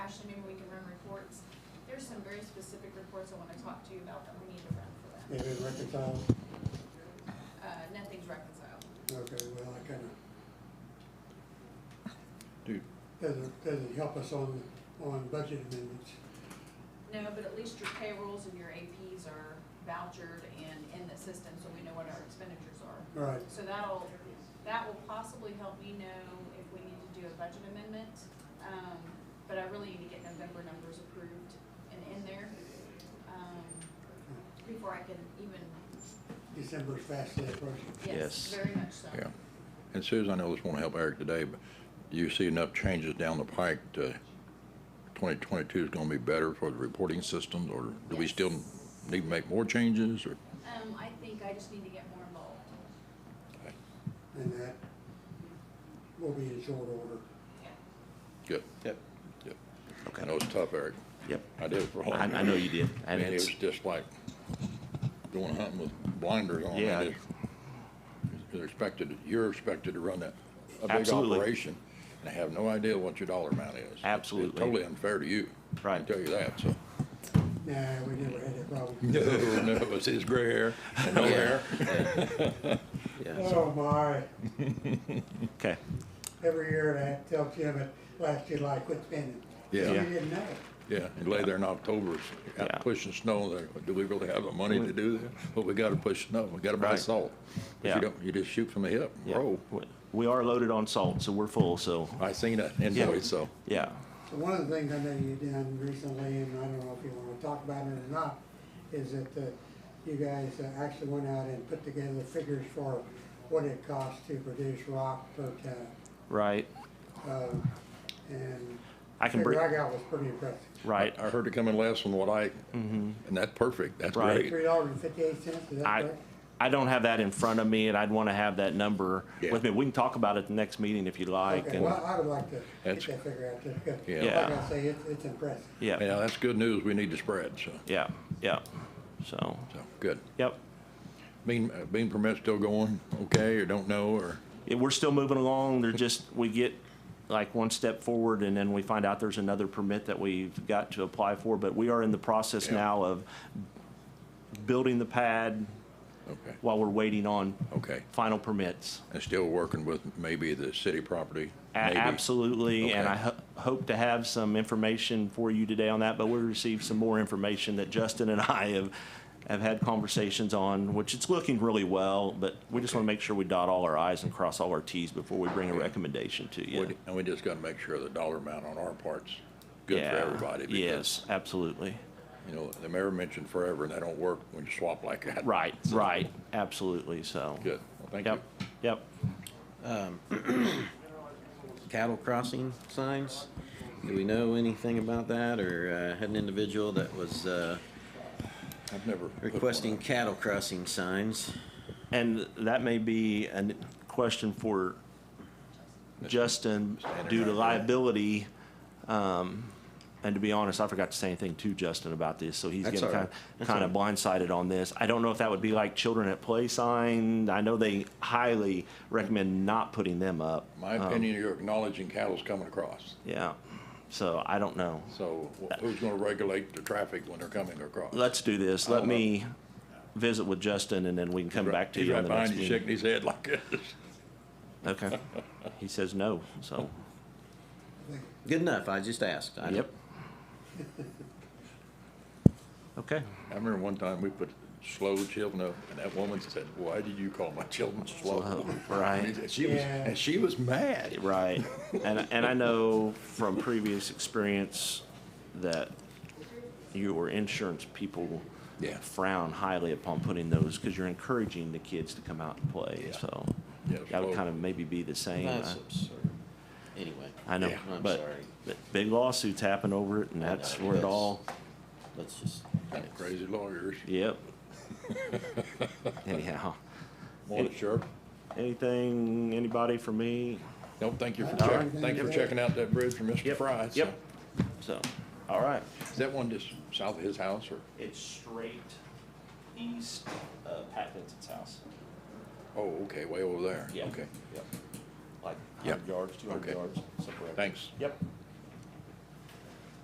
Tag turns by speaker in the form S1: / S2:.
S1: some very specific reports I wanna talk to you about that we need to run for them.
S2: They've been reconciled?
S1: Uh, nothing's reconciled.
S2: Okay, well, that kinda,
S3: Dude,
S2: doesn't, doesn't help us on, on budget amendments.
S1: No, but at least your payrolls and your APs are vouchered and in the system, so we know what our expenditures are.
S2: All right,
S1: So that'll, that will possibly help me know if we need to do a budget amendment. Um, but I really need to get November numbers approved and in there, um, before I can even,
S2: December's fastly approaching.
S1: yes,
S4: Yes.
S1: very much so.
S3: yeah. And Susan, I know this won't help Eric today, but do you see enough changes down the pike to 2022 is going to be better for the reporting systems, or do we still
S1: Yes.
S3: need to make more changes, or?
S1: Um, I think I just need to get more involved.
S2: And that will be in short order.
S1: Yeah.
S3: Good,
S4: Yep.
S3: good. I know
S4: Okay.
S3: it's tough, Eric.
S4: Yep.
S3: I did it for a long
S4: I,
S3: time.
S4: I know you did. I
S3: Man, it
S4: did.
S3: was just like going hunting with blinders on. I
S4: Yeah.
S3: just- You're expected, you're expected to run that, a big
S4: Absolutely.
S3: operation, and have no idea what your dollar amount is. It's- It's
S4: Absolutely.
S3: totally unfair to you. I
S4: Right.
S3: tell you that, so.
S2: Nah, we never had that problem.
S3: No, no, it was his gray hair and no hair.
S4: Yeah. so-
S2: Oh, my.
S4: Okay.
S2: Every year I had to tell Jim at last July, quit spending.
S3: Yeah.
S2: You
S3: Yeah.
S2: didn't know.
S3: Yeah, and lay there in October, out
S4: Yeah.
S3: pushing snow, like, do we really have the money to do this? But we gotta push snow, we gotta buy
S4: Right.
S3: salt. If
S4: Yeah.
S3: you don't, you just shoot from the hip,
S4: Yeah.
S3: roll.
S4: We- We are loaded on salt, so we're full. So
S3: I seen an invoice, so.
S4: yeah.
S2: So One of the things I know you've done recently, and I don't know if you wanna talk about it or not, is that, uh, you guys uh, actually went out and put together the figures for what it costs to produce rock per ton.
S4: Right.
S2: Uh, And
S4: I can
S2: figure
S4: bring.
S2: I got was pretty impressive.
S4: Right. Mm-hmm.
S3: I heard it coming last on what I, and that's perfect, that's
S4: Right.
S3: great.
S2: Three dollars and fifty-eight cents, is that
S4: I,
S2: correct?
S4: I don't have that in front of me, and I'd want to have that number
S3: Yeah.
S4: with me. We can talk about it at the next meeting if you like.
S2: Okay,
S4: and
S2: well, I would like to get
S3: That's-
S2: that figure out, just 'cause,
S3: Yeah.
S2: like I say, it's, it's impressive.
S4: yeah, yeah,
S3: Yeah, that's good news, we need to spread, so,
S4: yeah, So,
S3: so, good.
S4: yep,
S3: Bean, uh, bean permit still going, okay, or don't know, or,
S4: Yeah, we're still moving along. They're just we get like one step forward, and then we find out there's another permit that we've got to apply for. But we are in the process
S3: Yeah.
S4: now of building the pad
S3: okay,
S4: while we're waiting on
S3: okay.
S4: final permits.
S3: And still working with maybe the city property?
S4: A-
S3: maybe.
S4: Absolutely, and
S3: Okay.
S4: I ho- hope to have some information for you today on that. But we received some more information that Justin and I have have had conversations on, which it's looking really well. But we just want to make sure we dot all our i's and cross all our t's before we bring a recommendation to you.
S3: We- And we just gotta make sure the dollar amount on our part's good for
S4: Yeah,
S3: everybody. because,
S4: Yes, absolutely.
S3: You know, the mayor mentioned forever, and that don't work when you swap like that.
S4: Right, right, absolutely. So.
S3: Good, well, thank you.
S4: Yep, yep.
S5: cattle crossing signs. Do we know anything about that, or uh, had an individual that was uh,
S3: I've never. put one
S5: requesting
S3: up.
S5: cattle crossing signs?
S4: And that may be a question for Justin due to liability. um, And to be honest, I forgot to say anything to Justin about this, so he's
S5: That's
S4: getting
S5: all right.
S4: kind of, kind of blindsided on this. I don't know if that would be like children at play sign. I know they highly recommend not putting them up.
S3: My
S4: Um,
S3: opinion, you're acknowledging cattle's coming across,
S4: Yeah, so I don't know.
S3: so wh- who's gonna regulate the traffic when they're coming across?
S4: Let's do this.
S3: I
S4: Let
S3: don't know.
S4: me visit with Justin and then we can come back to
S3: He's
S4: you
S3: right
S4: on the next
S3: behind you
S4: meeting.
S3: shaking his head like this.
S4: Okay. He says no, so,
S5: Good enough, I just asked.
S3: Oh,
S5: I-
S4: yep. Okay.
S3: I remember one time we put slow children up, and that woman said, "Why did you call my children slow?"
S4: Slow, right.
S3: And she was,
S2: Yeah.
S3: and she was mad.
S4: Right. And, and I know from previous experience that your insurance people
S3: Yeah.
S4: frown highly upon putting those because you're encouraging the kids to come out and play,
S3: Yeah.
S4: so.
S3: Yeah,
S4: That
S3: slow.
S4: would kind of maybe be the same. uh,
S5: That's
S4: I-
S5: absurd. Anyway.
S4: I know,
S3: Yeah.
S5: I'm
S4: but,
S5: sorry.
S4: but big lawsuits happen over it and that's
S5: know,
S4: where it
S5: that's-
S4: all,
S5: Let's just.
S3: Crazy lawyers.
S4: yep. Anyhow.
S3: Morning, Sheriff.
S4: Anything, anybody for me?
S3: Nope, thank you for
S2: All right,
S3: checking, thank you for checking out that bridge for Mr.
S4: Yep,
S3: Fry. so.
S4: Yep. So, all right.
S3: Is that one just south of his house, or,
S4: It's straight east of Pat Vincent's house.
S3: oh, okay, way over there?
S4: Yeah.
S3: Okay,
S4: Yep. Like
S3: Yep.
S4: hundred yards, two hundred
S3: Okay.
S4: yards, somewhere.
S3: thanks.
S4: Yep.